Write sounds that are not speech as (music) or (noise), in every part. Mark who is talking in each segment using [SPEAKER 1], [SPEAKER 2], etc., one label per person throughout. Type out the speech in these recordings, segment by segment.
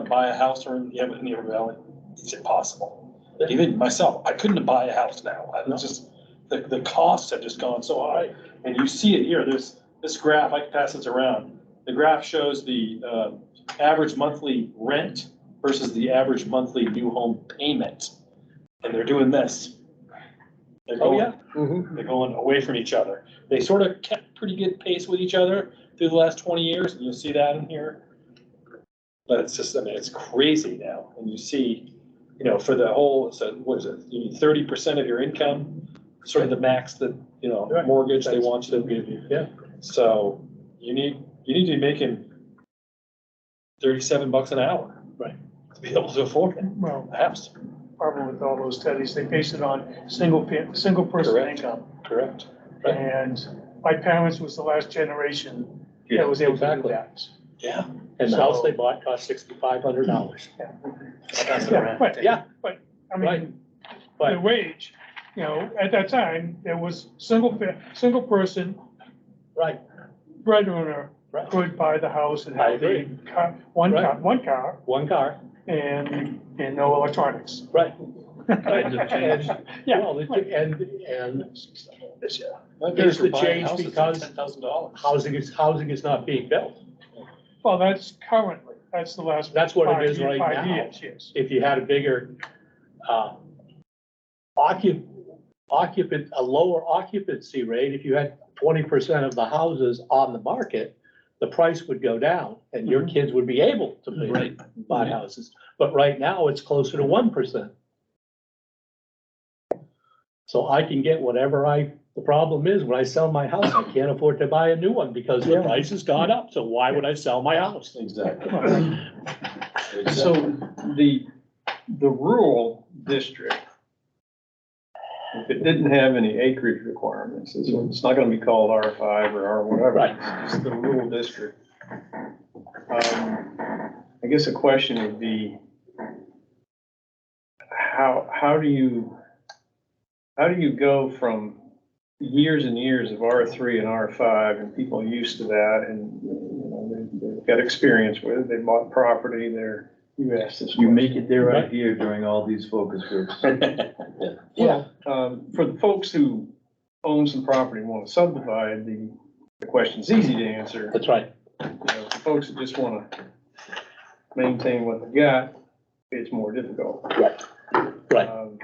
[SPEAKER 1] buy a house or you have it in the valley, it's impossible. Even myself, I couldn't buy a house now. I was just, the, the costs have just gone so high. And you see it here, there's, this graph, I can pass this around. The graph shows the, uh, average monthly rent versus the average monthly new home payment. And they're doing this. They're
[SPEAKER 2] Oh,
[SPEAKER 1] going, they're going away from each other. They sort of kept pretty good pace with each other through the last twenty years, and you'll see that in here. But it's just, I mean, it's crazy now, and you see, you know, for the whole, so what is it, you need thirty percent of your income, sort of the max that, you know,
[SPEAKER 2] Right.
[SPEAKER 1] mortgage they want you to give you.
[SPEAKER 2] Yeah.
[SPEAKER 1] So you need, you need to be making thirty-seven bucks an hour.
[SPEAKER 2] Right.
[SPEAKER 1] To be able to afford it,
[SPEAKER 3] Well,
[SPEAKER 1] perhaps,
[SPEAKER 3] probably with all those studies, they base it on single, pa- single person
[SPEAKER 1] Correct.
[SPEAKER 3] income.
[SPEAKER 1] correct? Right.
[SPEAKER 3] And my parents was the last generation that was able to do
[SPEAKER 2] Exactly.
[SPEAKER 3] that.
[SPEAKER 1] Yeah.
[SPEAKER 2] And the house they bought cost sixty-five hundred dollars.
[SPEAKER 3] Yeah, but-
[SPEAKER 2] Yeah,
[SPEAKER 3] I
[SPEAKER 2] Right.
[SPEAKER 3] mean,
[SPEAKER 2] But-
[SPEAKER 3] the wage, you know, at that time, there was single, fa- single person
[SPEAKER 2] right,
[SPEAKER 3] breadwinner
[SPEAKER 2] Right.
[SPEAKER 3] could buy the house and
[SPEAKER 2] I
[SPEAKER 3] have the car, one
[SPEAKER 2] Right.
[SPEAKER 3] car, one car
[SPEAKER 2] one car,
[SPEAKER 3] and, and no electronics.
[SPEAKER 2] right.
[SPEAKER 4] Times have changed.
[SPEAKER 2] Yeah, well, it- and, and
[SPEAKER 1] My
[SPEAKER 2] Here's
[SPEAKER 1] parents were
[SPEAKER 2] the
[SPEAKER 1] buying
[SPEAKER 2] change
[SPEAKER 1] houses
[SPEAKER 2] because-
[SPEAKER 1] Ten thousand dollars.
[SPEAKER 2] housing is, housing is not being built.
[SPEAKER 3] (laughs) Well, that's currently, that's the last.
[SPEAKER 2] That's what
[SPEAKER 3] five
[SPEAKER 2] it is
[SPEAKER 3] ye-
[SPEAKER 2] right
[SPEAKER 3] five
[SPEAKER 2] now.
[SPEAKER 3] years, Yes.
[SPEAKER 2] If you had a bigger, uh, occup, occupant, a lower occupancy rate, if you had twenty percent of the houses on the market, the price would go down and your kids would be able to buy-
[SPEAKER 1] Mm-hmm. Right. Mm-hmm.
[SPEAKER 2] buy houses. But right now, it's closer to one percent. So I can get whatever I, the problem is, when I sell my house, I can't afford to buy a new one because the
[SPEAKER 1] Yeah.
[SPEAKER 2] price has gone up, so why would I sell my house?
[SPEAKER 1] Exactly.
[SPEAKER 4] So the, the rural district, if it didn't have any acreage requirements, it's, it's not gonna be called R five or R whatever.
[SPEAKER 2] Right.
[SPEAKER 4] It's just the rural district. Um, I guess a question would be, how, how do you, how do you go from years and years of R three and R five and people used to that and, you know, they've, they've got experience with it, they bought property, they're, you asked this
[SPEAKER 5] You
[SPEAKER 4] question.
[SPEAKER 5] make it their idea during all these focus groups.
[SPEAKER 2] Yeah.
[SPEAKER 4] Um, for the folks who own some property and want to subdivide, the, the question's easy to answer.
[SPEAKER 2] That's right.
[SPEAKER 4] You know, for Folks that just want to maintain what they got, it's more difficult.
[SPEAKER 2] Right. Right.
[SPEAKER 4] Um,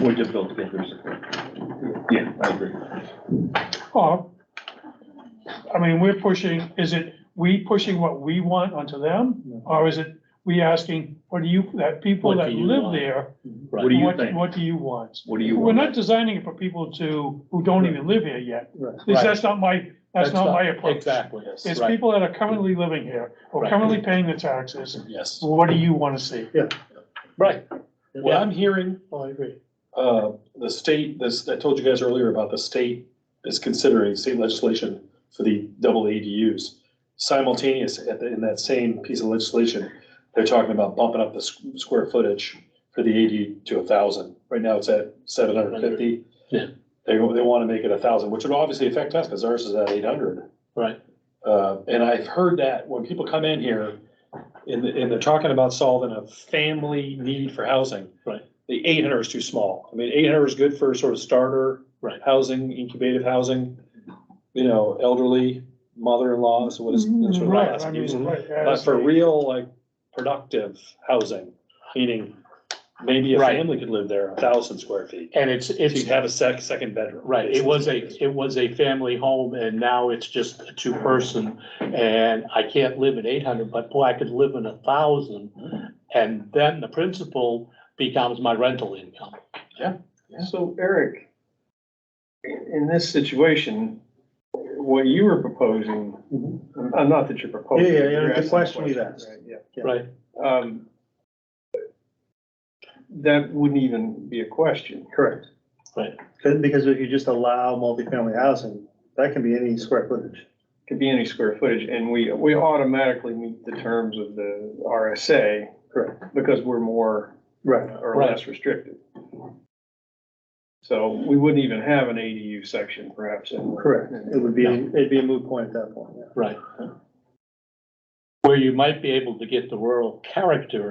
[SPEAKER 5] More difficult to get their support. Yeah, I agree.
[SPEAKER 3] Or, I mean, we're pushing, is it we pushing what we want onto them? Or is it we asking, what do you, that people
[SPEAKER 2] What
[SPEAKER 3] that
[SPEAKER 2] do you
[SPEAKER 3] live
[SPEAKER 2] want?
[SPEAKER 3] there,
[SPEAKER 5] What do you
[SPEAKER 3] what,
[SPEAKER 5] think?
[SPEAKER 3] what do you want?
[SPEAKER 5] What do you
[SPEAKER 3] We're not
[SPEAKER 5] want?
[SPEAKER 3] designing it for people to, who don't even live here yet. At least
[SPEAKER 2] Right.
[SPEAKER 3] that's not my, that's not my approach.
[SPEAKER 2] Exactly, yes.
[SPEAKER 3] It's
[SPEAKER 2] Right.
[SPEAKER 3] people that are currently living here, or
[SPEAKER 2] Right.
[SPEAKER 3] currently paying the taxes,
[SPEAKER 1] Yes.
[SPEAKER 3] what do you wanna see?
[SPEAKER 2] Right.
[SPEAKER 1] What I'm hearing,
[SPEAKER 2] Oh, I agree.
[SPEAKER 1] uh, the state, this, I told you guys earlier about the state is considering state legislation for the double ADUs. Simultaneous at the, in that same piece of legislation, they're talking about bumping up the squ- square footage for the AD to a thousand. Right now it's at seven hundred and fifty.
[SPEAKER 2] Yeah.
[SPEAKER 1] They, they wanna make it a thousand, which would obviously affect us, cause ours is at eight hundred.
[SPEAKER 2] Right.
[SPEAKER 1] Uh, and I've heard that when people come in here and, and they're talking about solving a family need for housing.
[SPEAKER 2] Right.
[SPEAKER 1] The eight hundred is too small. I mean, eight hundred is good for sort of starter.
[SPEAKER 2] Right.
[SPEAKER 1] Housing, incubative housing, you know, elderly, mother-in-law, so what is, that's what
[SPEAKER 3] Right,
[SPEAKER 1] I'm
[SPEAKER 3] I
[SPEAKER 1] asking
[SPEAKER 3] mean,
[SPEAKER 1] you.
[SPEAKER 3] right,
[SPEAKER 1] But
[SPEAKER 3] as
[SPEAKER 1] for
[SPEAKER 3] a-
[SPEAKER 1] real, like, productive housing, meaning maybe a
[SPEAKER 2] Right.
[SPEAKER 1] family could live there, a thousand square feet.
[SPEAKER 2] And it's,
[SPEAKER 1] So
[SPEAKER 2] it's,
[SPEAKER 1] you'd have a sec, second bedroom.
[SPEAKER 2] right, it was
[SPEAKER 1] basically.
[SPEAKER 2] a, it was a family home and now it's just a two-person. And I can't live in eight hundred, but boy, I could live in a thousand. And then the principal becomes my rental income.
[SPEAKER 4] So Eric, in this situation, what you were proposing, uh, not that you're proposing.
[SPEAKER 5] Mm-hmm. Yeah, yeah, yeah,
[SPEAKER 4] you're
[SPEAKER 5] the
[SPEAKER 4] asking the
[SPEAKER 5] question we've asked.
[SPEAKER 4] right, yeah.
[SPEAKER 2] Right,
[SPEAKER 4] um, that wouldn't even be a question.
[SPEAKER 5] Correct.
[SPEAKER 2] Right.
[SPEAKER 5] Because, because if you just allow multifamily housing, that can be any square footage.
[SPEAKER 4] Could be any square footage, and we, we automatically meet the terms of the RSA
[SPEAKER 5] Correct.
[SPEAKER 4] because we're more
[SPEAKER 5] Right.
[SPEAKER 4] or
[SPEAKER 2] Right.
[SPEAKER 4] less restricted. So we wouldn't even have an ADU section perhaps. in-
[SPEAKER 5] Correct. It would be, it'd be a moot point at that point, yeah.
[SPEAKER 2] right. where you might be able to get the rural character